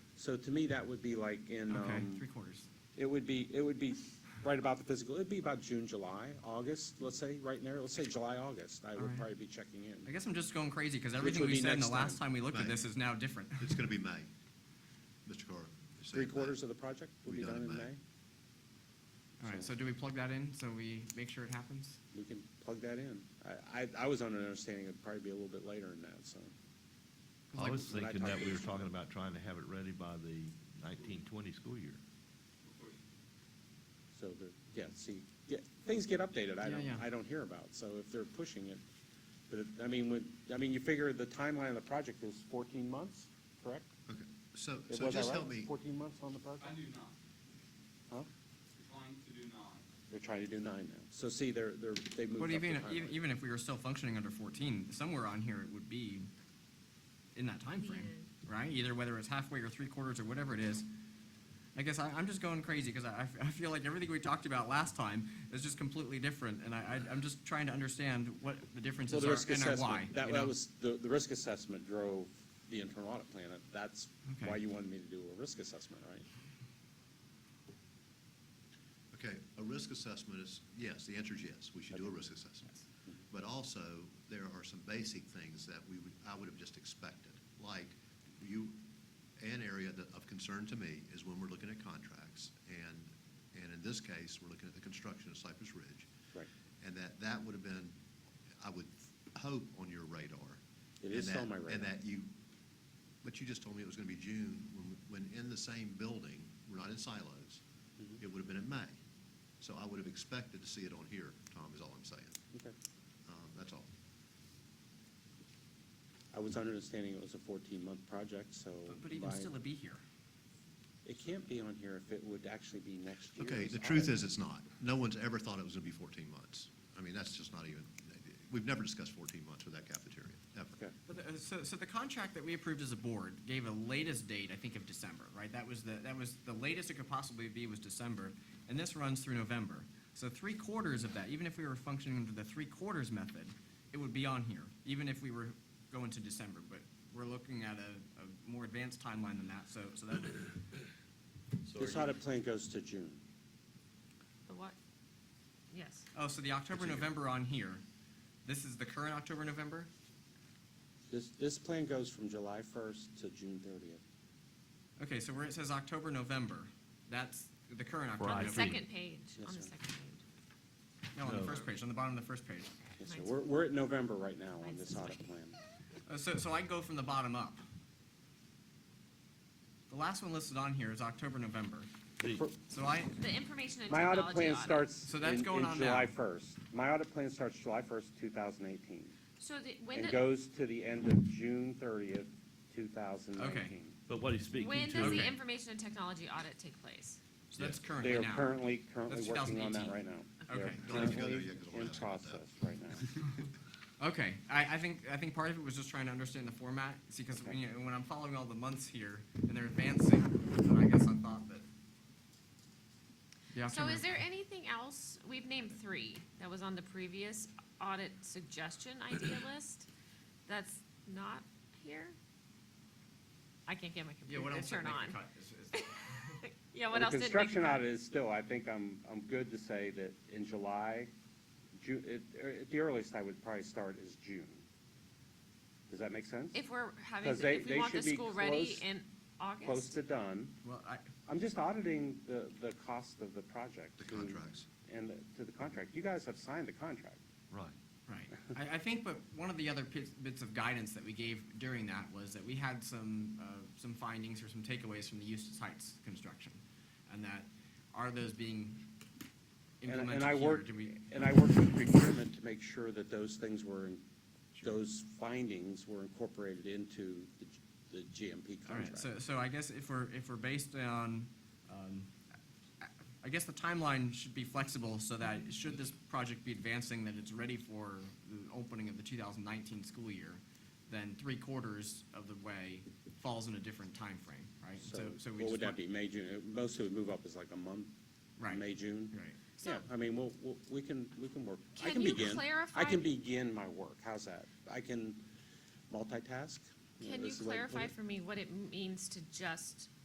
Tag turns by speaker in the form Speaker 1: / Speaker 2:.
Speaker 1: So to me, that would be like in,
Speaker 2: Okay,
Speaker 1: um,
Speaker 2: three quarters.
Speaker 1: it would be, it would be right about the physical, it'd be about June, July, August, let's say, right in there, let's say July, August, I would
Speaker 2: Alright.
Speaker 1: probably be checking in.
Speaker 2: I guess I'm just going crazy because everything
Speaker 1: would
Speaker 2: we
Speaker 1: be
Speaker 2: said in the
Speaker 1: next
Speaker 2: last
Speaker 1: time.
Speaker 2: time we looked at
Speaker 3: Right.
Speaker 2: this is now different.
Speaker 3: It's gonna be May, Mr. Carr. It's
Speaker 1: Three
Speaker 3: saying May.
Speaker 1: quarters of the project will be done in May.
Speaker 2: All right, so do we plug that in so we make sure it happens?
Speaker 1: We can plug that in. I, I, I was under the understanding it'd probably be a little bit later than that, so.
Speaker 2: 'Cause
Speaker 4: I
Speaker 2: like-
Speaker 4: was
Speaker 1: when I
Speaker 4: thinking
Speaker 1: talked
Speaker 4: that
Speaker 1: to
Speaker 4: we were
Speaker 1: the-
Speaker 4: talking about trying to have it ready by the nineteen twenty school year.
Speaker 1: So the, yeah, see, yeah, things get updated, I
Speaker 2: Yeah,
Speaker 1: don't,
Speaker 2: yeah.
Speaker 1: I don't hear about, so if they're pushing it. But, it- I mean, with, I mean, you figure the timeline of the project is fourteen months, correct?
Speaker 3: Okay, so,
Speaker 1: It-
Speaker 3: so
Speaker 1: was I
Speaker 3: just
Speaker 1: right?
Speaker 3: help me,
Speaker 1: Fourteen months on the project?
Speaker 5: I do not.
Speaker 1: Huh?
Speaker 5: We're trying to do nine.
Speaker 1: They're trying to do nine now. So see, they're, they're, they moved up
Speaker 2: But
Speaker 1: the
Speaker 2: even, even,
Speaker 1: timeline.
Speaker 2: even if we were still functioning under fourteen, somewhere on here it would be in that time frame, right? Either whether it's halfway or three quarters or whatever it is. I guess I, I'm just going crazy because I, I f- I feel like everything we talked about last time is just completely different and I, I, I'm just trying to understand what the
Speaker 1: Well,
Speaker 2: differences
Speaker 1: the risk
Speaker 2: are and are why.
Speaker 1: assessment, that
Speaker 2: you know?
Speaker 1: that was, the, the risk assessment drove the internal audit plan. and That's
Speaker 2: Okay.
Speaker 1: why you wanted me to do a risk assessment, right?
Speaker 3: okay, a risk assessment is, yes, the answer is yes, we should do a risk assessment.
Speaker 2: Yes.
Speaker 1: Mm-hmm.
Speaker 3: But also, there are some basic things that we would, I would have just expected, like you, an area that of concern to me is when we're looking at contracts, and, and in this case, we're looking at the construction of Cypress Ridge.
Speaker 1: Right.
Speaker 3: And that, that would have been, I would hope, on your radar.
Speaker 1: It
Speaker 3: And
Speaker 1: is
Speaker 3: that-
Speaker 1: on my radar.
Speaker 3: And that you, but you just told me it was gonna be June, when, when in the same building, we're not in silos,
Speaker 1: Mm-hmm.
Speaker 3: it would have been in May. So I would have expected to see it on here, Tom, is all I'm saying.
Speaker 1: Okay.
Speaker 3: Um, that's all.
Speaker 1: I was under understanding it was a fourteen-month project, so.
Speaker 2: But, but even
Speaker 1: by-
Speaker 2: still, it'd be here.
Speaker 1: It can't be on here if it would actually be next year.
Speaker 3: Okay, the truth is, it's not. No one's ever thought it was gonna be fourteen months. I mean, that's just not even, we've never discussed fourteen months with that cafeteria,
Speaker 1: Okay,
Speaker 3: ever.
Speaker 2: But, uh, So, so the contract that we approved as a board gave a latest date, I think, of December, right? That was the, that was the latest it could possibly be was December, and this runs through November. So three quarters of that, even if we were functioning under the three quarters method, it would be on here, even if we were going to December. But we're looking at a, a more advanced timeline than that, so, so that,
Speaker 1: This audit plan goes to June.
Speaker 6: The what? Yes.
Speaker 2: oh, so the October, November on here, this is the current October, November?
Speaker 1: This, this plan goes from July first to June thirtieth.
Speaker 2: Okay, so where it says October, November, that's the current October,
Speaker 6: On
Speaker 4: Right.
Speaker 6: the
Speaker 2: November.
Speaker 6: second page,
Speaker 1: Yes,
Speaker 6: on the
Speaker 1: sir.
Speaker 6: second page.
Speaker 2: No, on the
Speaker 4: No.
Speaker 2: first page, on the bottom of the first page.
Speaker 1: Yes, sir.
Speaker 6: Mine's-
Speaker 1: We're, we're at November right now on
Speaker 6: Mine's
Speaker 1: this
Speaker 6: this way.
Speaker 1: audit plan.
Speaker 2: Uh, So, so I go from the bottom up. The last one listed on here is October, November.
Speaker 4: The-
Speaker 1: For-
Speaker 2: So I,
Speaker 6: The information and
Speaker 1: My
Speaker 6: technology
Speaker 1: audit plan
Speaker 6: audit.
Speaker 1: starts
Speaker 2: So
Speaker 1: in,
Speaker 2: that's
Speaker 1: in
Speaker 2: going on now.
Speaker 1: July first. My audit plan starts July first, two thousand eighteen,
Speaker 6: So the, when
Speaker 1: and
Speaker 6: the,
Speaker 1: goes to the end of June thirtieth, two thousand nineteen.
Speaker 4: But what he's
Speaker 6: when
Speaker 4: speaking
Speaker 6: does
Speaker 4: to,
Speaker 6: the
Speaker 2: Okay.
Speaker 6: information and technology audit take place?
Speaker 2: so that's
Speaker 1: They
Speaker 2: currently
Speaker 1: are
Speaker 2: now.
Speaker 1: currently, currently
Speaker 2: That's
Speaker 1: working on that
Speaker 2: 2018.
Speaker 1: right now. They are
Speaker 2: Okay.
Speaker 3: Don't even go there
Speaker 1: currently
Speaker 3: yet, 'cause I wanna
Speaker 1: In
Speaker 3: ask about that.
Speaker 1: process right now.
Speaker 2: Okay, I, I think, I think part of it was just trying to understand the format, see, because when,
Speaker 1: Okay.
Speaker 2: you- when I'm following all the months here and they're advancing, then I guess I thought that. the
Speaker 6: So
Speaker 2: October-
Speaker 6: is there anything else? We've named three that was on the previous audit suggestion idea list that's not here? I can't get my
Speaker 2: Yeah, what
Speaker 6: computer to
Speaker 2: else did
Speaker 6: turn
Speaker 2: make
Speaker 6: on.
Speaker 2: the cut? Is- is-
Speaker 6: Yeah,
Speaker 1: Well,
Speaker 6: what else
Speaker 1: The
Speaker 6: did make the
Speaker 1: construction
Speaker 6: cut?
Speaker 1: audit is still, I think I'm, I'm good to say that in July, Ju, it, er, at the earliest I would probably start is June. Does that make sense?
Speaker 6: If we're having,
Speaker 1: 'Cause
Speaker 6: to-
Speaker 1: they-
Speaker 6: if
Speaker 1: they
Speaker 6: we want the
Speaker 1: should be
Speaker 6: school ready
Speaker 1: close-
Speaker 6: in
Speaker 1: Close
Speaker 6: August?
Speaker 1: to done.
Speaker 2: Well, I,
Speaker 1: I'm just auditing the, the cost of the project.
Speaker 3: The
Speaker 1: to-
Speaker 3: contracts.
Speaker 1: And the- to the contract. You guys have signed the contract.
Speaker 4: right,
Speaker 2: Right. I, I think, but one of the other pits, bits of guidance that we gave during that was that we had some, uh, some findings or some takeaways from the Eustis Heights construction. And that, are those being
Speaker 1: And,
Speaker 2: implemented
Speaker 1: and I
Speaker 2: here?
Speaker 1: worked,
Speaker 2: Do we-
Speaker 1: and I worked with procurement to make sure that those things were, in- those findings were incorporated into the, G- the GMP
Speaker 2: All right,
Speaker 1: contract.
Speaker 2: so, so I guess if we're, if we're based on, um, I- I guess the timeline should be flexible so that should this project be advancing, that it's ready for the opening of the two thousand nineteen school year, then three quarters of the way falls in a different time frame, right?
Speaker 1: So
Speaker 2: so we
Speaker 1: what
Speaker 2: just
Speaker 1: would that
Speaker 2: want-
Speaker 1: be, May, June? It- Most would move up as like a month?
Speaker 2: Right.
Speaker 1: May, June?
Speaker 2: Right.
Speaker 1: Yeah,
Speaker 6: So-
Speaker 1: I mean, we'll, we'll- we can, we can work. I
Speaker 6: Can you
Speaker 1: begin- I
Speaker 6: clarify-
Speaker 1: can begin my work. How's that? I can multitask?
Speaker 6: Can you
Speaker 1: Is the way to put
Speaker 6: clarify
Speaker 1: it?
Speaker 6: for me what it means to just